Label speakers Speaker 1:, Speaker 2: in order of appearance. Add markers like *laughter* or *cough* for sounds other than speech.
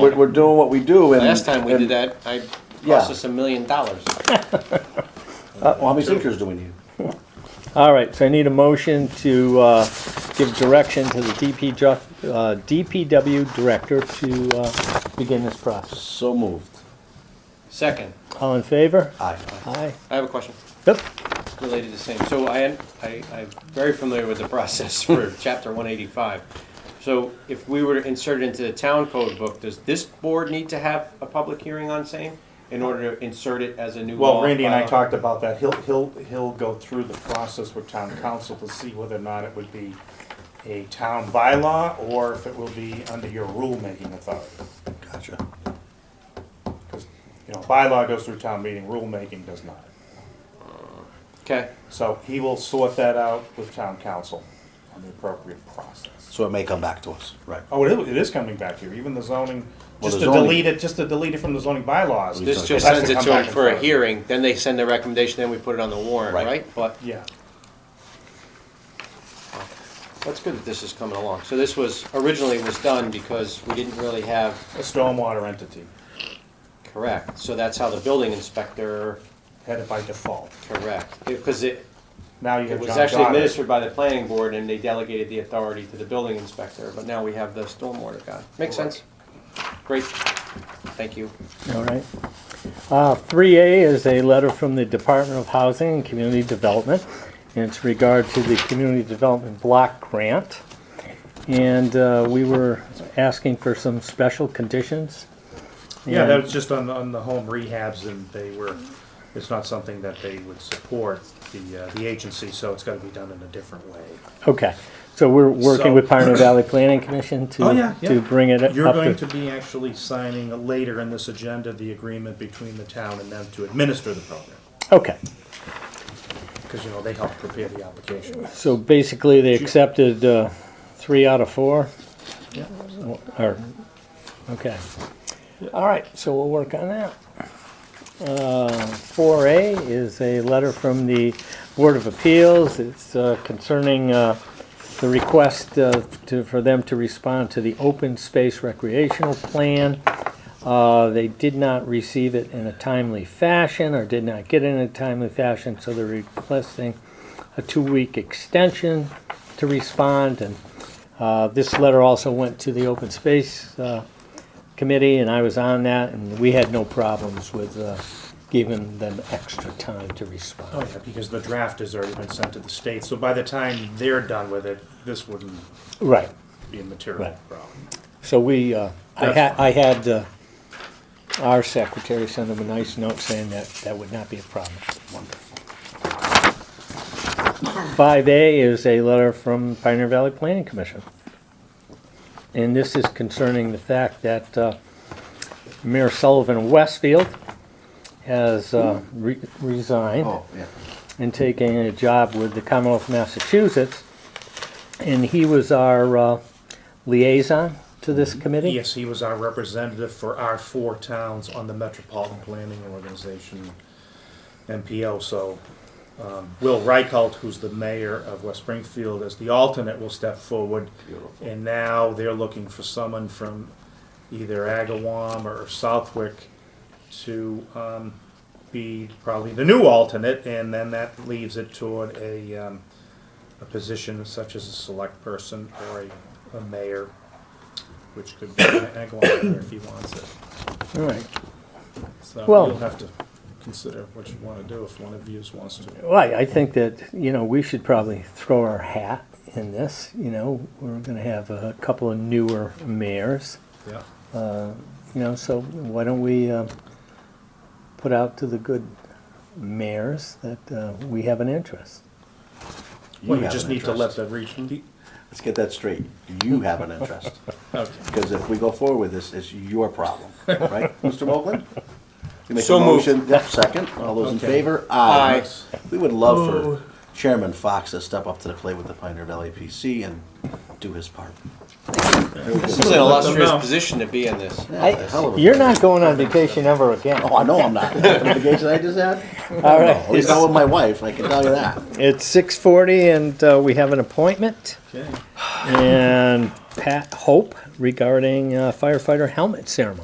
Speaker 1: We're, we're doing what we do and.
Speaker 2: Last time we
Speaker 1: and-
Speaker 2: did that, I
Speaker 1: Yeah.
Speaker 2: cost us a million dollars.
Speaker 1: Uh, well, how many sinkers do we need?
Speaker 3: All right, so I need a motion to uh, give direction to the DP, ju- uh, DPW director to uh, begin this process.
Speaker 1: So moved.
Speaker 2: Second,
Speaker 3: All in favor?
Speaker 1: Aye.
Speaker 3: Aye.
Speaker 2: I have a question
Speaker 3: Yep.
Speaker 2: related to same. So I, I, I'm very familiar with the *laughs* process
Speaker 4: *laughs*
Speaker 2: for chapter one eighty-five. So if we were to insert it into the town code book, does this board need to have a public hearing on same in order to insert it as a new law?
Speaker 4: Well, Randy and I
Speaker 2: bylaw?
Speaker 4: talked about that. He'll, he'll, he'll go through the process with town council to see whether or not it would be a town bylaw or if it will be under your rulemaking authority.
Speaker 1: Gotcha.
Speaker 4: Because, you know, bylaw goes through town meeting, rulemaking does not.
Speaker 2: Okay,
Speaker 4: So he will sort that out with town council on the appropriate process.
Speaker 1: So it may come back to us, right?
Speaker 4: Oh, it is, it is coming back here, even the zoning,
Speaker 1: Well,
Speaker 4: just
Speaker 1: the
Speaker 4: to
Speaker 1: zoning-
Speaker 4: delete it, just to delete it from the zoning bylaws.
Speaker 2: this just
Speaker 4: That's
Speaker 2: sends
Speaker 4: to
Speaker 2: it
Speaker 4: come
Speaker 2: to them
Speaker 4: back and
Speaker 2: for a
Speaker 4: forth.
Speaker 2: hearing, then they send their recommendation, then we put it on the warrant,
Speaker 1: Right.
Speaker 2: right? But
Speaker 4: Yeah.
Speaker 2: that's good that this is coming along. So this was, originally was done because we didn't really have
Speaker 4: A stormwater entity,
Speaker 2: Correct, so that's how the building inspector,
Speaker 4: had it by default.
Speaker 2: correct, because it,
Speaker 4: Now you
Speaker 2: it
Speaker 4: have John
Speaker 2: was actually
Speaker 4: Goddard.
Speaker 2: administered by the planning board and they delegated the authority to the building inspector, but now we have the stormwater guy. Makes sense? Great, thank you.
Speaker 3: All right. Uh, 3A is a letter from the Department of Housing and Community Development, and it's regard to the Community Development Block Grant. And uh, we were asking for some special conditions.
Speaker 4: Yeah,
Speaker 3: And-
Speaker 4: that was just on, the- on the home rehabs and they were, it's not something that they would support the, uh, the agency, so it's gotta be done in a different way.
Speaker 3: Okay, so we're working
Speaker 4: So-
Speaker 3: with Pioneer Valley Planning Commission
Speaker 4: Oh, yeah,
Speaker 3: to,
Speaker 4: yeah.
Speaker 3: to bring it up
Speaker 4: You're going to
Speaker 3: to.
Speaker 4: be actually signing later in this agenda, the agreement between the town and them to administer the program.
Speaker 3: Okay,
Speaker 4: Cause you know, they help prepare the application.
Speaker 3: so basically they accepted, uh, three out of four? Or, okay. All right, so we'll work on that. Uh, four A is a letter from the Board of Appeals. It's uh, concerning, uh, the request, uh, to, for them to respond to the open space recreational plan. Uh, they did not receive it in a timely fashion or did not get it in a timely fashion, so they're requesting a two-week extension to respond. And uh, this letter also went to the Open Space uh, Committee, and I was on that, and we had no problems with uh, giving them extra time to
Speaker 4: Oh,
Speaker 3: respond.
Speaker 4: yeah, because the draft has already been sent to the state, so by the time they're done with it, this wouldn't
Speaker 3: Right.
Speaker 4: be a material
Speaker 3: Right.
Speaker 4: problem.
Speaker 3: So we, uh, I had,
Speaker 4: That's
Speaker 3: I had uh, our secretary send them a nice note saying that that would not be a problem. Five A is a letter from Pioneer Valley Planning Commission. And this is concerning the fact that uh, Mayor Sullivan of Westfield has uh, re- resigned
Speaker 1: Oh, yeah.
Speaker 3: and taking a job with the Commonwealth of Massachusetts. And he was our uh, liaison to this
Speaker 1: Mm-hmm.
Speaker 3: committee.
Speaker 4: Yes, he was our representative for our four towns on the Metropolitan Planning Organization, MPO, so um, Will Reichelt, who's the mayor of West Springfield, as the alternate, will step forward. And now they're looking for someone from either Agawam or Southwick to um, be probably the new alternate, and then that leaves it toward a, um, a position such as a select person or a, a mayor which could be an Agawam here if he wants it.
Speaker 3: All right.
Speaker 4: So
Speaker 3: Well-
Speaker 4: you'll have to consider what you want to do if one of you wants to.
Speaker 3: Well, I- I think that, you know, we should probably throw our hat in this. You know, we're going to have a couple of newer mayors.
Speaker 4: Yeah.
Speaker 3: You know, so why don't we uh, put out to the good mayors that uh, we have an interest?
Speaker 4: Well, you
Speaker 1: have
Speaker 4: just
Speaker 1: an
Speaker 4: need to let
Speaker 1: interest.
Speaker 4: the region.
Speaker 1: Let's get that straight. You have an
Speaker 4: *laughs*
Speaker 1: interest.
Speaker 4: Okay.
Speaker 1: Because if we go forward with this, it's your problem,
Speaker 4: *laughs*
Speaker 1: right, Mr. Moklin? You make a
Speaker 2: So moved.
Speaker 1: motion, yep, second. All those in
Speaker 4: Okay.
Speaker 1: favor?
Speaker 2: Aye.
Speaker 1: We would love for Chairman Fox to step up to the plate with the Pioneer Valley PC and do his part.
Speaker 2: This is an illustrious
Speaker 4: know.
Speaker 2: position to be in this.
Speaker 1: Hell of a-
Speaker 3: You're not going on vacation ever again.
Speaker 1: Oh, I know I'm not. The vacation I just had?
Speaker 3: All right.
Speaker 1: At least not with my wife, I can tell you that.
Speaker 3: It's six forty and uh, we have an appointment.
Speaker 4: Okay.
Speaker 3: And Pat Hope regarding uh, firefighter helmet ceremony.